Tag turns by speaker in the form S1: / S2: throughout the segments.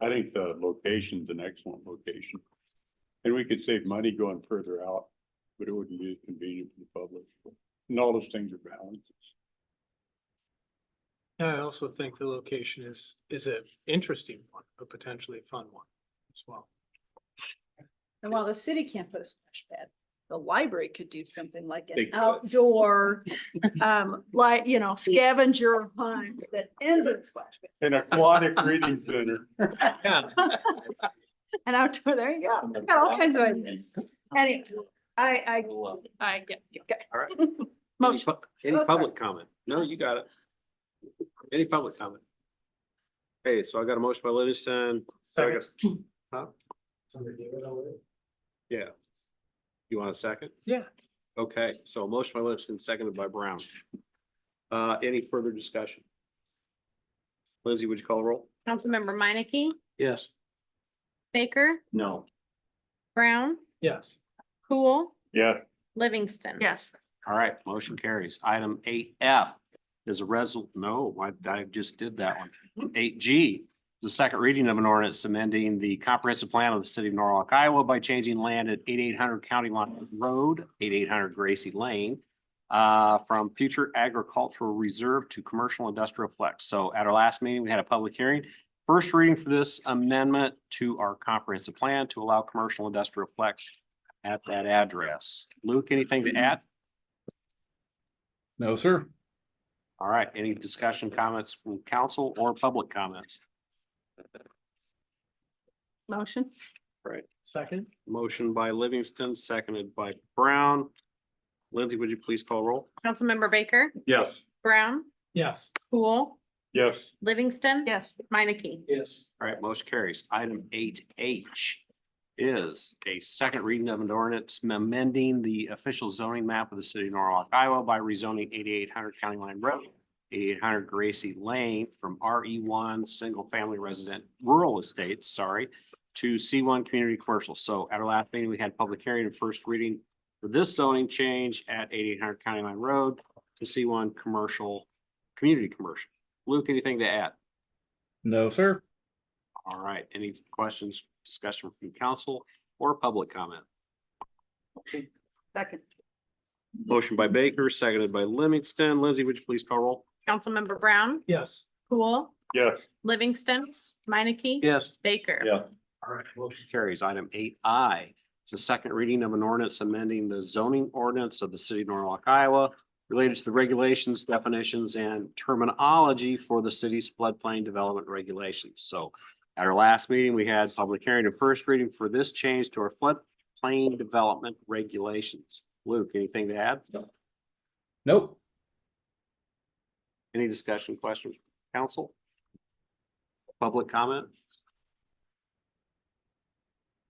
S1: I think the location's an excellent location. And we could save money going further out, but it wouldn't be as convenient for the public. And all those things are balanced.
S2: Yeah, I also think the location is, is an interesting one, but potentially a fun one as well.
S3: And while the city can't put a splash pad, the library could do something like
S1: They
S3: an
S1: could.
S3: outdoor, um, like, you know, scavenger hunt that ends in a splash pad.
S1: An aquatic reading center.
S2: Yeah,
S3: And outdoor, there you
S1: Oh
S3: go. I've Got all kinds of ideas. Anyway, I, I,
S4: All
S3: I, yeah, yeah, okay.
S4: right. Any
S3: Motion.
S4: pub- Any
S3: Oh, sorry.
S4: public comment? No, you got it. Any public comment? Hey, so I got a motion by Livingston.
S2: Second.
S4: Huh? Yeah. You want a second?
S2: Yeah.
S4: Okay, so a motion by Livingston, seconded by Brown. Uh, any further discussion? Lindsay, would you call a roll?
S5: Councilmember Minneke,
S4: Yes.
S5: Baker,
S4: No.
S5: Brown,
S2: yes.
S5: Cool,
S1: Yeah,
S5: Livingston.
S3: Yes,
S4: All right, motion carries. Item eight F is a resol, no, I, I just did that one. Eight G, the second reading of an ordinance amending the comprehensive plan of the city of Norwalk, Iowa by changing land at eighty-eight hundred County Line Road, eighty-eight hundred Gracie Lane, uh, from future agricultural reserve to commercial industrial flex. So at our last meeting, we had a public hearing. First reading for this amendment to our comprehensive plan to allow commercial industrial flex at that address. Luke, anything to add?
S6: No, sir.
S4: All right, any discussion, comments from council or public comments?
S3: motion.
S2: Second?
S4: Motion by Livingston, seconded by Brown. Lindsay, would you please call roll?
S5: Councilmember Baker,
S1: yes.
S5: Brown,
S2: Yes.
S5: Cool,
S1: Yes,
S5: Livingston.
S3: Yes,
S5: Minneke.
S2: Yes.
S4: All right, motion carries. Item eight H is a second reading of an ordinance amending the official zoning map of the city of Norwalk, Iowa by rezoning eighty-eight hundred County Line Road, eighty-eight hundred Gracie Lane from RE one, single family resident rural estates, sorry, to C one community commercial. So at our last meeting, we had public hearing and first reading for this zoning change at eighty-eight hundred County Line Road to C one commercial, community commercial. Luke, anything to add?
S6: No, sir.
S4: All right, any questions, discussion from council or public comment?
S3: second.
S4: Motion by Baker, seconded by Livingston. Lindsay, would you please call roll?
S5: Councilmember Brown,
S2: Yes.
S5: Cool,
S1: yes.
S5: Livingston, Minneke.
S4: Yes.
S5: Baker.
S1: Yeah.
S4: All right, motion carries. Item eight I, it's a second reading of an ordinance amending the zoning ordinance of the city of Norwalk, Iowa related to the regulations, definitions, and terminology for the city's floodplain development regulations. So at our last meeting, we had public hearing and first reading for this change to our floodplain development regulations. Luke, anything to add?
S6: Nope.
S4: Any discussion, questions, council? Public comment?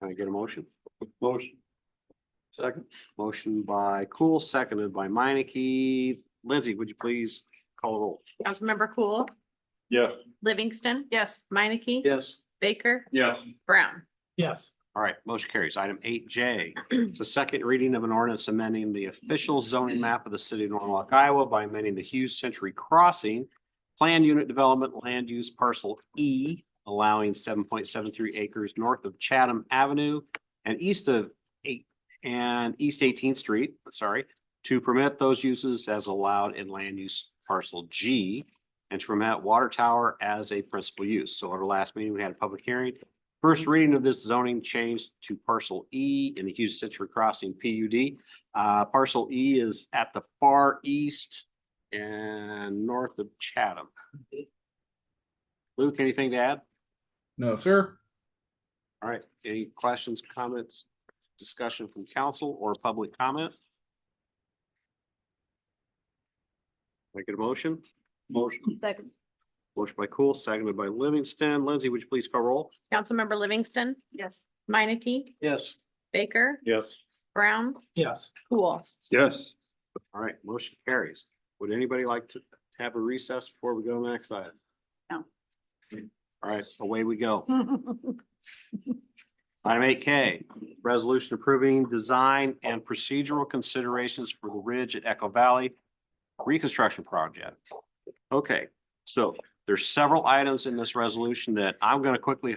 S4: Can I get a motion?
S1: Motion,
S4: Second. Motion by Cool, seconded by Minneke. Lindsay, would you please call the roll?
S5: Councilmember Cool,
S1: yes.
S5: Livingston,
S3: Yes,
S5: Minneke.
S4: Yes.
S5: Baker,
S1: Yes.
S5: Brown.
S2: Yes.
S4: All right, motion carries. Item eight J, it's a second reading of an ordinance amending the official zoning map of the city of Norwalk, Iowa by amending the Hughes Century Crossing Plan Unit Development Land Use Parcel E, allowing seven point seven three acres north of Chatham Avenue and east of eight, and East Eighteenth Street, sorry, to permit those uses as allowed in land use parcel G and to permit water tower as a principal use. So at our last meeting, we had a public hearing. First reading of this zoning change to parcel E in the Hughes Citrus Crossing PUD. Uh, parcel E is at the far east and north of Chatham. Luke, anything to add?
S6: No, sir.
S4: All right, any questions, comments, discussion from council or public comment? Make it a motion.
S1: Motion,
S3: second.
S4: Motion by Cool, seconded by Livingston. Lindsay, would you please call roll?
S5: Councilmember Livingston,
S3: Yes.
S5: Minneke,
S4: Yes.
S5: Baker,
S1: yes.
S5: Brown,
S2: Yes.
S5: Cool.
S1: Yes.
S4: All right, motion carries. Would anybody like to to have a recess before we go to the next item?
S3: No.
S4: All right, away we go. Item eight K, resolution approving design and procedural considerations for the Ridge at Echo Valley reconstruction project. Okay, so there's several items in this resolution that I'm gonna quickly